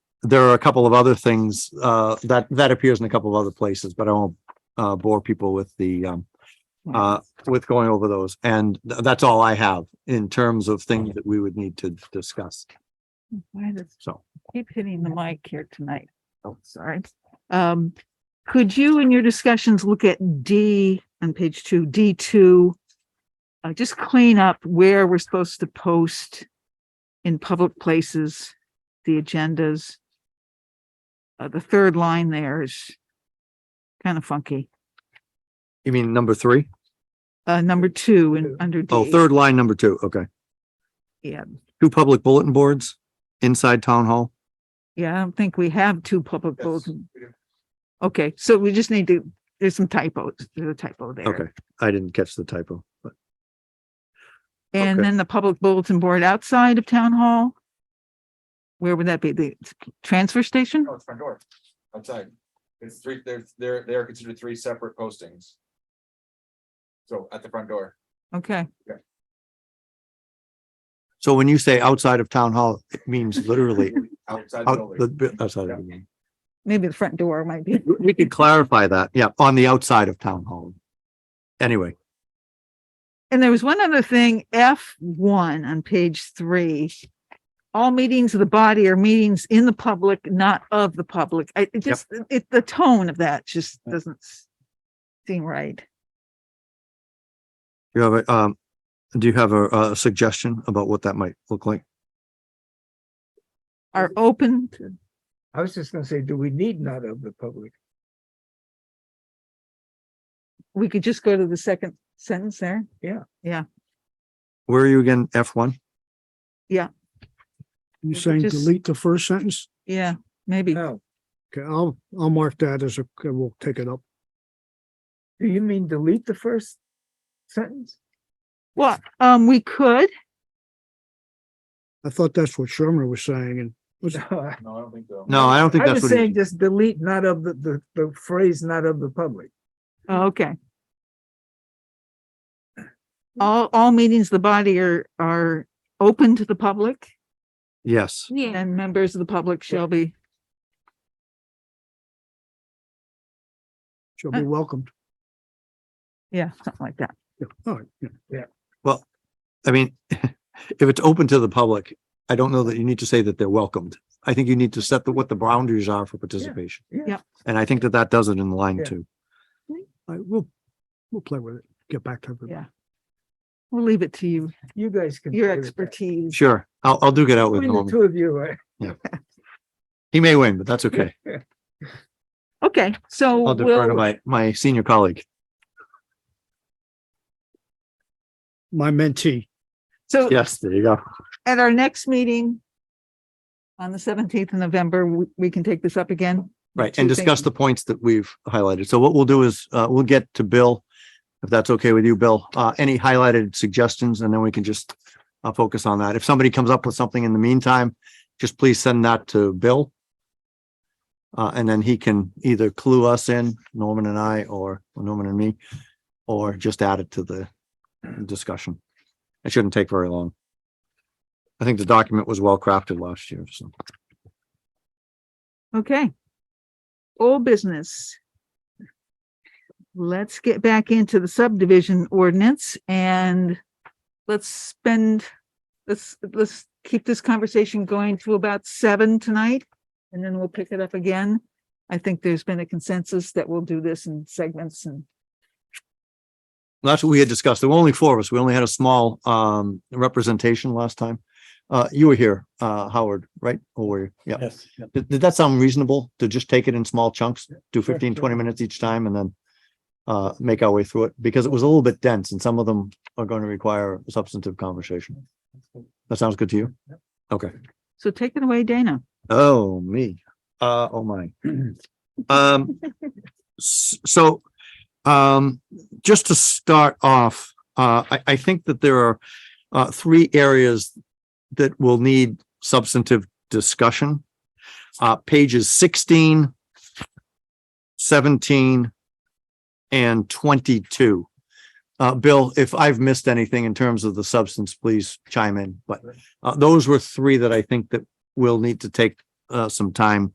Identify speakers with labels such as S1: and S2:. S1: there are a couple of other things, uh, that, that appears in a couple of other places, but I won't, uh, bore people with the, um, uh, with going over those. And th- that's all I have in terms of things that we would need to discuss.
S2: Why does
S1: So,
S2: keep hitting the mic here tonight? Oh, sorry. Um, could you in your discussions look at D on page two, D two? Uh, just clean up where we're supposed to post in public places, the agendas. Uh, the third line there is kind of funky.
S1: you mean number three?
S2: Uh, number two in under D.
S1: Oh, third line, number two. Okay.
S2: Yeah.
S1: Two public bulletin boards inside town hall.
S2: Yeah, I don't think we have two public
S3: Yes,
S2: bulletin.
S3: we do.
S2: Okay, so we just need to, there's some typos, there's a typo there.
S1: Okay. I didn't catch the typo, but
S2: And
S1: Okay.
S2: then the public bulletin board outside of town hall? Where would that be? The transfer station?
S3: No, it's front door, outside. It's three, they're, they're, they're considered three separate postings. So at the front door,
S2: Okay,
S1: so when you say outside of town hall, it means literally
S3: outside the
S1: out the,
S3: building.
S1: bu- outside of the building.
S2: maybe the front door might be.
S1: We could clarify that, yeah, on the outside of town hall. Anyway,
S2: And there was one other thing, F one on page three. All meetings of the body are meetings in the public, not of the public. I it just, it, the tone of that just doesn't s- seem right.
S1: you have a, um, do you have a, a suggestion about what that might look like?
S2: Are open to,
S4: I was just gonna say, do we need not of the public?
S2: we could just go to the second sentence there.
S1: Where are you again? F one?
S5: You
S2: Maybe
S5: saying
S2: just-
S5: delete the first sentence?
S2: Yeah, maybe.
S4: No,
S5: Okay, I'll, I'll mark that as a, okay, we'll take it up.
S4: do you mean delete the first sentence?
S2: Well, um, we could,
S5: I thought that's what Sherman was saying and was,
S4: No, I
S3: No, I don't think so.
S1: No, I don't think
S4: I
S1: that's
S4: was
S1: what,
S4: saying
S1: he-
S4: just delete not of the, the, the phrase not of the public.
S2: Oh, Okay. All, all meetings, of the body are, are open to the public
S1: yes,
S6: Yeah,
S2: and members of the public shall be,
S5: shall be welcomed.
S2: yeah, something like that.
S5: Yeah, All right, yeah.
S1: I mean, if it's open to the public, I don't know that you need to say that they're welcomed. I think you need to set the, what the boundaries are for participation.
S4: yeah.
S2: Yep.
S1: And I think that that does it in line
S4: Yeah.
S1: two.
S5: I will, we'll play with it, get back to it.
S2: Yeah. We'll leave it to you,
S4: You guys can.
S2: your
S4: play with that.
S2: expertise.
S1: Sure, I'll, I'll do get out with
S4: Between
S1: Norman.
S4: the two of you, right?
S1: He may win, but that's okay.
S2: Okay, so
S1: I'll defer to
S2: we'll,
S1: my, my senior colleague.
S5: My mentee,
S2: so
S1: Yes, there you go.
S2: at our next meeting on the seventeenth of November, we, we can take this up again.
S1: Right,
S2: two
S1: and discuss
S2: things.
S1: the points that we've highlighted. So what we'll do is, uh, we'll get to Bill, if that's okay with you, Bill, uh, any highlighted suggestions, and then we can just uh, focus on that. If somebody comes up with something in the meantime, just please send that to Bill. Uh, and then he can either clue us in, Norman and I, or or Norman and me, or just add it to the discussion. It shouldn't take very long. I think the document was well crafted last year, so.
S2: Okay. Old business. Let's get back into the subdivision ordinance and let's spend, let's, let's keep this conversation going to about seven tonight. And then we'll pick it up again. I think there's been a consensus that we'll do this in segments and
S1: That's what we had discussed. There were only four of us. We only had a small um representation last time. Uh, you were here, uh, Howard, right? Or were you? Yeah.
S7: Yes.
S1: Did, did that sound reasonable to just take it in small chunks, do
S7: Sure,
S1: 15, 20
S7: sure.
S1: minutes each time and then uh, make our way through it? Because it was a little bit dense and some of them are going to require substantive conversation. That sounds good to you? Okay.
S2: so take it away, Dana.
S1: Oh, me. Uh, oh my. Um, s- so, um, just to start off, uh, I, I think that there are, uh, three areas that will need substantive discussion. Uh, pages 16, 17, and twenty-two. Uh, Bill, if I've missed anything in terms of the substance, please chime in, but, uh, those were three that I think that we'll need to take uh, some time